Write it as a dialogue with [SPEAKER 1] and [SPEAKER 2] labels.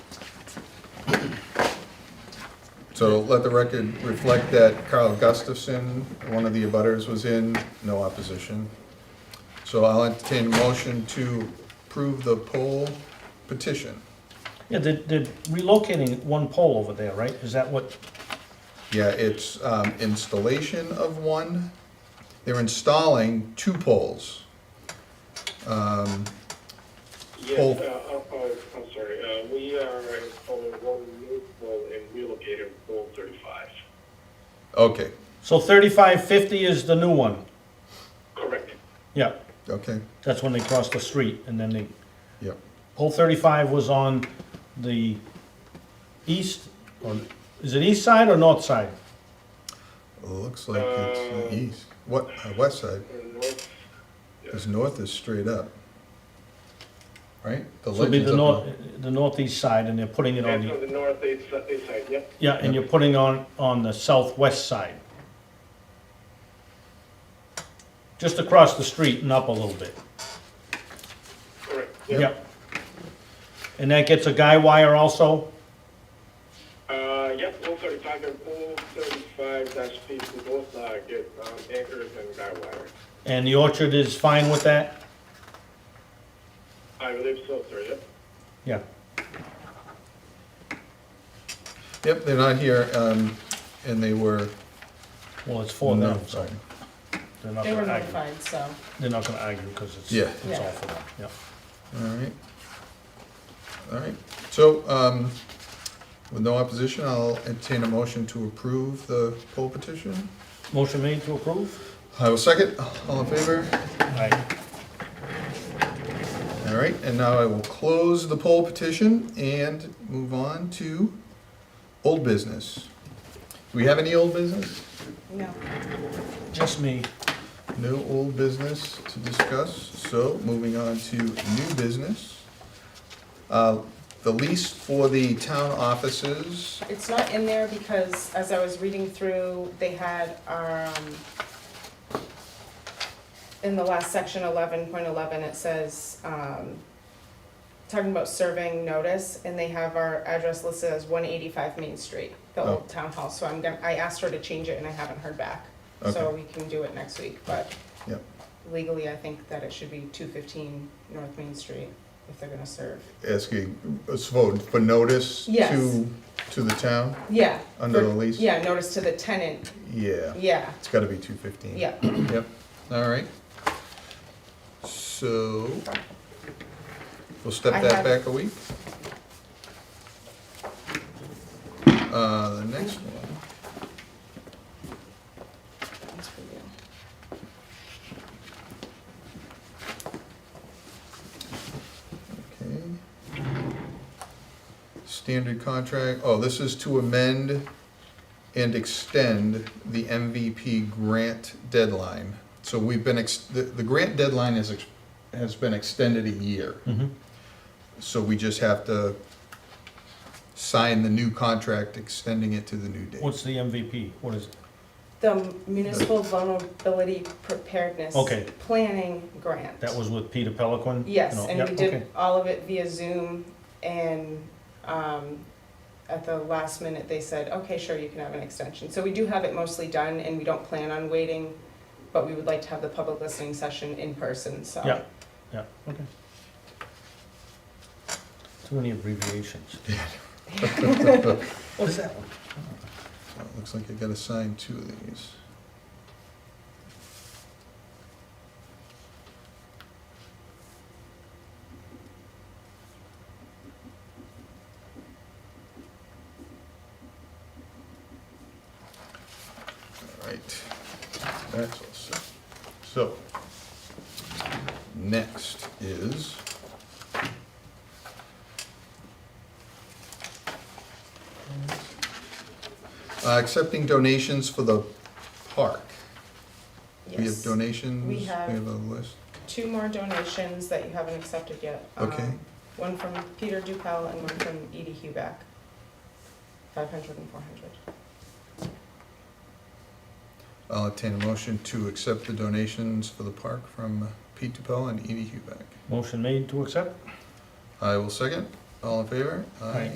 [SPEAKER 1] So let the record reflect that Carl Gustafson, one of the abutters, was in, no opposition. So I'll entertain a motion to approve the poll petition.
[SPEAKER 2] Yeah, they're, they're relocating one pole over there, right? Is that what,
[SPEAKER 1] Yeah, it's um, installation of one. They're installing two poles. Um,
[SPEAKER 3] Yes,
[SPEAKER 1] Paul.
[SPEAKER 3] uh, I'm, uh, I'm sorry, uh, we are installing one new pole and relocating pole thirty-five.
[SPEAKER 1] Okay,
[SPEAKER 2] so thirty-five fifty is the new one?
[SPEAKER 3] Correct.
[SPEAKER 2] Yeah,
[SPEAKER 1] okay,
[SPEAKER 2] that's when they cross the street and then they,
[SPEAKER 1] yep.
[SPEAKER 2] pole thirty-five was on the east, or, is it east side or north side?
[SPEAKER 1] Looks like it's the east, what, uh, west side,
[SPEAKER 3] And north,
[SPEAKER 1] because north is straight up. Right? The
[SPEAKER 2] So it'd be
[SPEAKER 1] legend's
[SPEAKER 2] the
[SPEAKER 1] up
[SPEAKER 2] north, the northeast side and they're putting it on
[SPEAKER 3] that's on
[SPEAKER 2] the,
[SPEAKER 3] the north east, east side, yep.
[SPEAKER 2] yeah, and you're putting on, on the southwest side. Just across the street and up a little bit.
[SPEAKER 3] Correct.
[SPEAKER 2] Yep. And that gets a guy wire also?
[SPEAKER 3] Uh, yep, pole thirty-five and pole thirty-five dash fifty both, uh, get, um, anchors and guy wire.
[SPEAKER 2] And the orchard is fine with that?
[SPEAKER 3] I believe so, sir, yep.
[SPEAKER 2] Yeah.
[SPEAKER 1] north. Yep, they're not here, um, and they were.
[SPEAKER 2] Well, it's for them, so
[SPEAKER 1] notified.
[SPEAKER 2] they're not
[SPEAKER 4] They were
[SPEAKER 2] gonna argue.
[SPEAKER 4] notified, so.
[SPEAKER 2] They're not gonna argue because it's,
[SPEAKER 1] Yeah.
[SPEAKER 2] it's all
[SPEAKER 4] Yeah.
[SPEAKER 2] for them, yeah.
[SPEAKER 1] All right. All right, so, um, with no opposition, I'll entertain a motion to approve the poll petition.
[SPEAKER 2] Motion made to approve?
[SPEAKER 1] I will second, all in favor?
[SPEAKER 2] Aye.
[SPEAKER 1] All right, and now I will close the poll petition and move on to old business. Do we have any old business?
[SPEAKER 4] No.
[SPEAKER 2] Just me.
[SPEAKER 1] No old business to discuss, so moving on to new business. Uh, The lease for the town offices,
[SPEAKER 4] It's not in there because as I was reading through, they had, um, in the last section eleven point eleven, it says, um, talking about serving notice, and they have our address listed as one eighty-five Main Street, the
[SPEAKER 1] Oh.
[SPEAKER 4] old town hall, so I'm gonna, I asked her to change it and I haven't heard back. So we can do it next week, but
[SPEAKER 1] Yep.
[SPEAKER 4] legally, I think that it should be two fifteen North Main Street if they're gonna serve.
[SPEAKER 1] asking, it's vote for notice
[SPEAKER 4] Yes.
[SPEAKER 1] to, to the town?
[SPEAKER 4] Yeah.
[SPEAKER 1] Under
[SPEAKER 4] for-
[SPEAKER 1] the lease?
[SPEAKER 4] Yeah, notice to the tenant,
[SPEAKER 1] Yeah,
[SPEAKER 4] yeah,
[SPEAKER 1] it's gotta be two fifteen.
[SPEAKER 4] yeah.
[SPEAKER 1] Yep, all right. So, we'll step
[SPEAKER 4] I
[SPEAKER 1] that
[SPEAKER 4] have-
[SPEAKER 1] back a week. Uh, the next one.
[SPEAKER 4] That's for you.
[SPEAKER 1] Okay. Standard contract, oh, this is to amend and extend the MVP grant deadline. So we've been, ex- the, the grant deadline is, ex- has been extended a year.
[SPEAKER 2] Mhm.
[SPEAKER 1] So we just have to sign the new contract, extending it to the new date.
[SPEAKER 2] What's the MVP? What is, it?
[SPEAKER 4] The municipal vulnerability preparedness.
[SPEAKER 2] Okay.
[SPEAKER 4] Planning grant.
[SPEAKER 2] that was with Peter Pelican?
[SPEAKER 4] Yes,
[SPEAKER 2] No,
[SPEAKER 4] and
[SPEAKER 2] yeah,
[SPEAKER 4] we
[SPEAKER 2] okay.
[SPEAKER 4] did all of it via Zoom and, um, at the last minute, they said, okay, sure, you can have an extension. So we do have it mostly done and we don't plan on waiting, but we would like to have the public listening session in person, so.
[SPEAKER 2] Yeah, yeah, okay. Too many abbreviations. What is that one?
[SPEAKER 1] Oh, Looks like I gotta sign two of these. All right, that's all set. So, next is uh, accepting donations for the park. We have
[SPEAKER 4] Yes.
[SPEAKER 1] donations,
[SPEAKER 4] We
[SPEAKER 1] we
[SPEAKER 4] have-
[SPEAKER 1] have a list.
[SPEAKER 4] Two more donations that you haven't accepted yet. Um,
[SPEAKER 1] Okay.
[SPEAKER 4] One from Peter Dupel and one from Edie Huback. Five hundred and four hundred.
[SPEAKER 1] I'll obtain a motion to accept the donations for the park from Pete DuPel and Edie Huback.
[SPEAKER 2] Motion made to accept?
[SPEAKER 1] I will second. All in favor?
[SPEAKER 2] Aye.